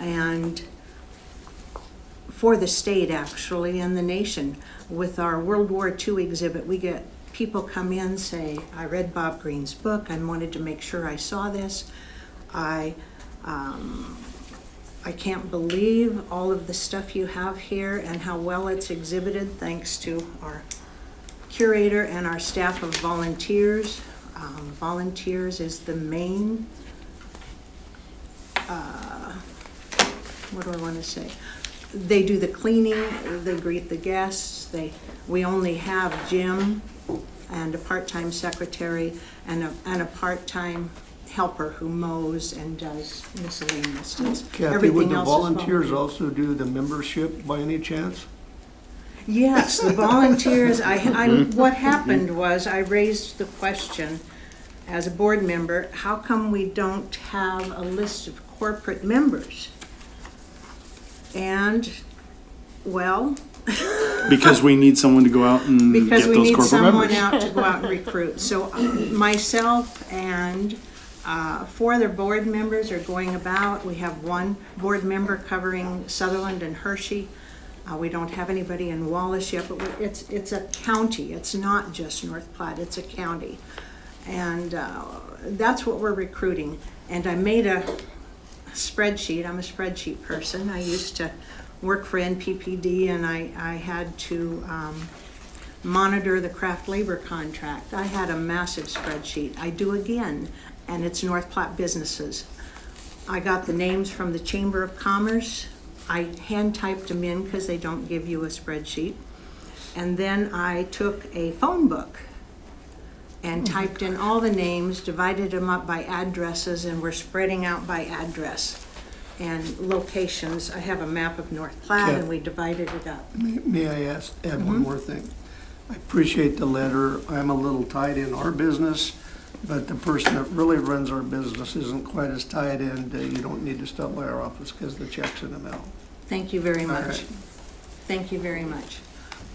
and for the state actually and the nation. With our World War II exhibit, we get people come in say, "I read Bob Green's book. I wanted to make sure I saw this. I um, I can't believe all of the stuff you have here and how well it's exhibited, thanks to our curator and our staff of volunteers. Um, volunteers is the main, uh, what do I want to say? They do the cleaning, they greet the guests, they, we only have Jim and a part-time secretary and a, and a part-time helper who mows and does miscellaneous stuff. Kathy, would Everything the else is volunteers also do the membership by any chance? Yes, the volunteers, I, I, what happened was I raised the question as a board member, how come we don't have a list of corporate members? And, well, Because we need someone to go out and because Mm, get we those need corporate someone members. out to go out and recruit. So uh, myself and uh, four other board members are going about. We have one board member covering Sutherland and Hershey. Uh, We don't have anybody in Wallace yet, but we- it's, it's a county. It's not just North Platte, it's a county. And uh, that's what we're recruiting. And I made a spreadsheet, I'm a spreadsheet person. I used to work for NPPD and I, I had to um, monitor the craft labor contract. I had a massive spreadsheet. I do again, and it's North Platte businesses. I got the names from the Chamber of Commerce. I hand typed them in because they don't give you a spreadsheet. And then I took a phone book and typed in all the names, divided them up by addresses, and we're spreading out by address and locations. I have a map of North Platte, and we divided it up. May- May I ask, add Mm-hmm. one more thing? I appreciate the letter. I'm a little tied in our business, but the person that really runs our business isn't quite as tied in. to, You don't need to stop by our office because the check's in the mail. Thank you very much. right. Thank you very much.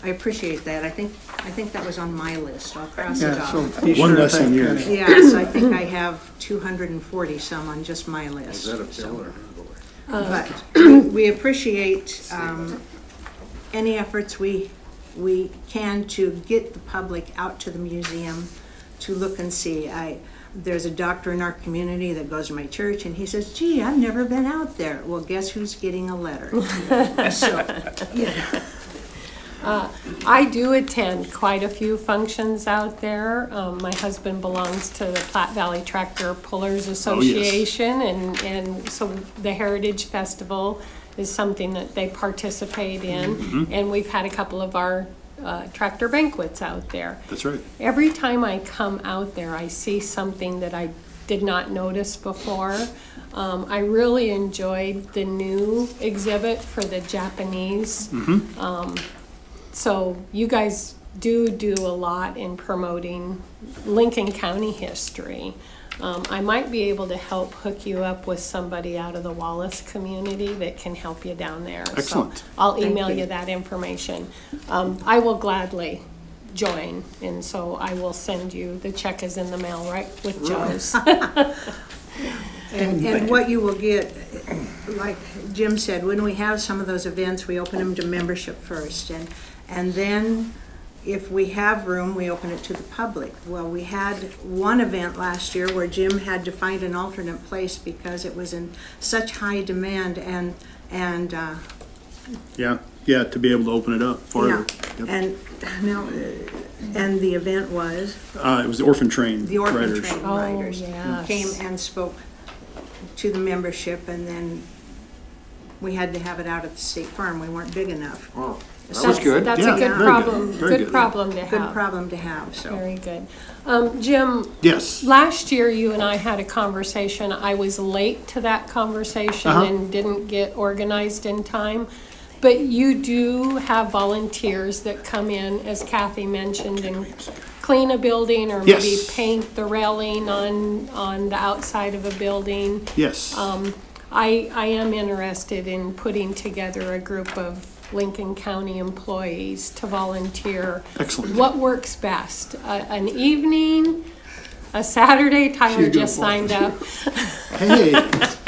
I appreciate that. I think, I think that was on my list. I'll cross it Yeah, so off. be One sure to less than thank yours. Penny. Yes, I think I have 240 some on just my list. so- But we appreciate um, any efforts we, we can to get the public out to the museum to look and see. I, there's a doctor in our community that goes to my church and he says, gee, I've never been out there. Well, guess who's getting a letter? So, yeah. I do attend quite a few functions out there. Um, my husband belongs to the Platte Valley Tractor Pullers Oh, Association, and, and so the Heritage Festival is something that they participate in. Mm-hmm. And we've had a couple of our uh, tractor banquets out there. That's right. Every time I come out there, I see something that I did not notice before. Um, I really enjoyed the new exhibit for the Japanese. Um, so you guys do do a lot in promoting Lincoln County history. Um, I might be able to help hook you up with somebody out of the Wallace community that can help you down there. So Excellent. I'll email you. you that information. Um, I will gladly join, and so I will send you, the check is in the mail, right, with Joe's. And, and what you will get, like Jim said, when we have some of those events, we open them to membership first, and, and then if we have room, we open it to the public. Well, we had one event last year where Jim had to find an alternate place because it was in such high demand and, and, uh, Yeah, yeah, to be able to open it up yeah. farther. Yep. And, no, and the event was? Uh, it was the orphan train the orphan riders. train Oh, riders yes. came and spoke to the membership, and then we had to have it out at the state farm. We weren't big enough. That was good. That's Yeah, a good very good. problem, Very good good. problem to Good have, problem to have, so. very good. Um, Jim, Yes, Last year, you and I had a conversation. I was late to that conversation Uh-huh. and didn't get organized in time. But you do have volunteers that come in, as Kathy mentioned, and clean a building or maybe Yes. paint the railing on, on the outside of a building. yes. Um, I, I am interested in putting together a group of Lincoln County employees to volunteer. Excellent. What works best? A- An evening, a Saturday, Tyler She's gonna just fall. signed up. Hey,